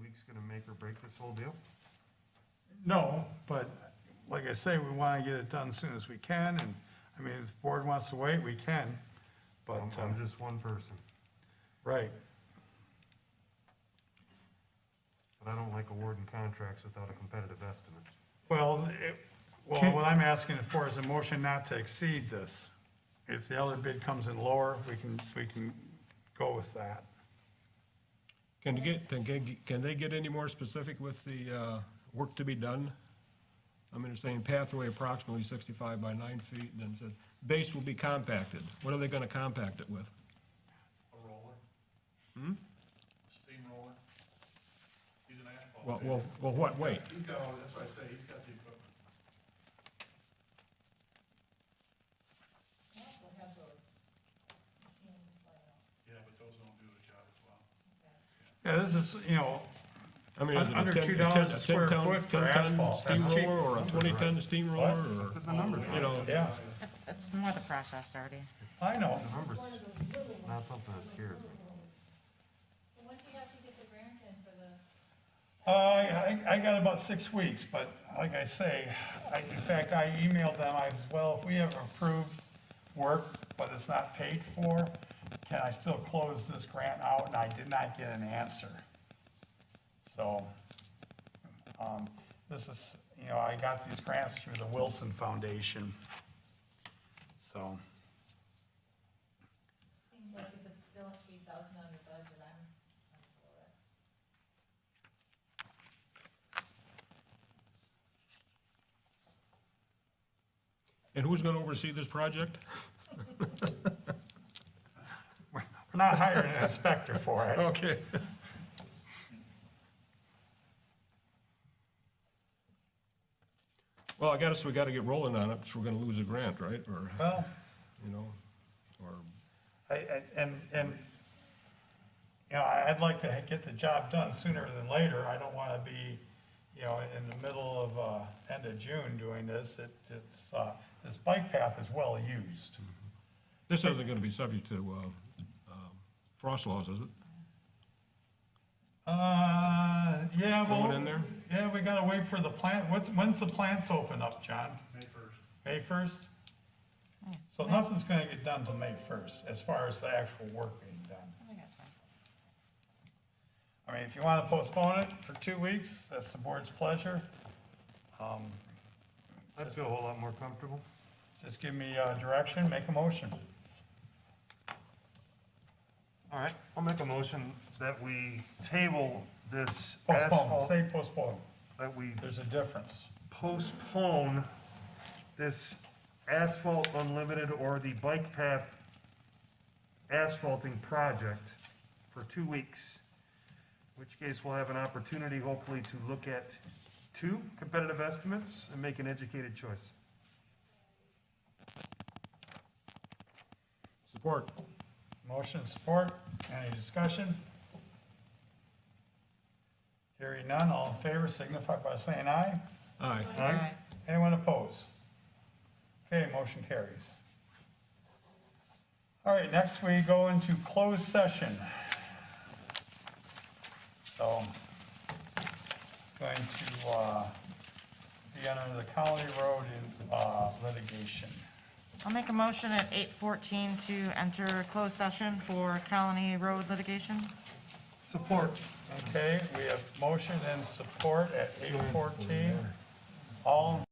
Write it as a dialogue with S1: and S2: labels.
S1: week's gonna make or break this whole deal?
S2: No, but like I say, we want to get it done as soon as we can, and, I mean, if the board wants to wait, we can, but,
S1: I'm,
S2: um,
S1: I'm just one person,
S2: right,
S1: but I don't like awarding contracts without a competitive estimate.
S2: well, it, well, what I'm asking for is a motion not to exceed this. If the other bid comes in lower, we can, we can go with that.
S3: Can you get, can- can, can they get any more specific with the, uh, work to be done? I mean, they're saying pathway approximately sixty-five by nine feet, and then it says, base will be compacted. What are they gonna compact it with?
S4: A roller? Hmm? Steamroller? He's an asphalt.
S3: Well, well, well, what weight?
S4: He's got all, that's what I say, he's got the equipment.
S5: I also have those machines uh, laid out.
S4: Yeah, but those don't do the job as well.
S2: Yeah, this is, you know,
S3: I mean, is it a
S2: Under
S3: 10 a
S2: $2
S3: ten-
S2: a
S3: a
S2: square
S3: 10
S2: foot for
S3: 10
S2: asphalt. That's cheap.
S3: Steamroller or a twenty-ton steamroller or,
S1: But the numbers,
S3: you know,
S2: yeah,
S6: It's more the process already.
S2: I know,
S1: the numbers, not something that scares me.
S5: But when do you have to get the grant in for the,
S2: Uh, I, I got about six weeks, but like I say, I, in fact, I emailed them, I said, well, if we have approved work, but it's not paid for, can I still close this grant out? And I did not get an answer. So, um, this is, you know, I got these grants through the Wilson Foundation. So,
S5: seems like if it's still at three thousand under budget, I'm, I'm for it.
S3: and who's gonna oversee this project?
S2: we're we're not hiring an inspector for it.
S3: Okay. Well, I guess we gotta get rolling on it, so we're gonna lose a grant, right? Or,
S2: Well,
S3: you know, or,
S2: I, I- and, and, you know, I- I'd like to get the job done sooner than later. I don't want to be, you know, in the middle of, uh, end of June doing this. It, it's, uh, this bike path is well used.
S3: this isn't gonna be subject to, uh, um, frost laws, is it?
S2: Uh, yeah, well.
S3: Going in there?
S2: Yeah, we gotta wait for the plant. What's, when's the plants open up, John?
S4: May first.
S2: May first? So nothing's gonna get done till May first, as far as the actual work being done.
S6: We got time.
S2: I mean, if you want to postpone it for two weeks, that's the board's pleasure. Um,
S1: I'd feel a whole lot more comfortable.
S2: Just give me uh, direction, make a motion.
S1: All right, I'll make a motion that we table this
S2: Postpone,
S1: asphalt,
S2: say postpone.
S1: that we
S2: There's a difference.
S1: postpone this asphalt unlimited or the bike path asphalting project for two weeks. In Which case we'll have an opportunity hopefully to look at two competitive estimates and make an educated choice.
S3: Support.
S2: Motion support, any discussion? Hearing none, all in favor signify by saying aye.
S3: Aye.
S1: Aye.
S2: Anyone opposed? Okay, motion carries. All right, next we go into closed session. So it's going to uh, be under the county road in uh, litigation.
S6: I'll make a motion at eight fourteen to enter closed session for Colony Road litigation.
S1: Support.
S2: Okay, we have motion and support at 8:14. All in